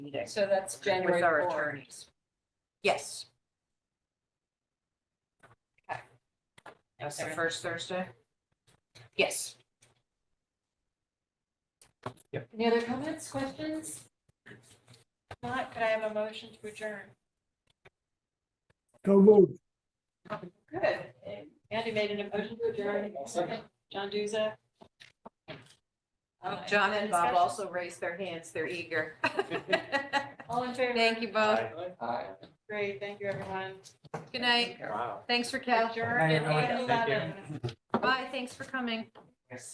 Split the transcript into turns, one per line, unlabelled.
meeting
So that's January
with our
four.
attorneys. Yes.
Okay.
That's the first Thursday? Yes.
Any other comments, questions? If Not, could I have a motion to adjourn?
So moved.
Good. Andy made an motion to adjourn. Second. John Duza. Uh,
Oh, John
any
and Bob
discussion?
also raised their hands. They're eager.
All in favor?
Thank you both.
Great, thank you, everyone.
Good night.
Wow.
Thanks for catching.
Adjourn at
everyone. Thank you.
8:11.
Bye. Thanks for coming.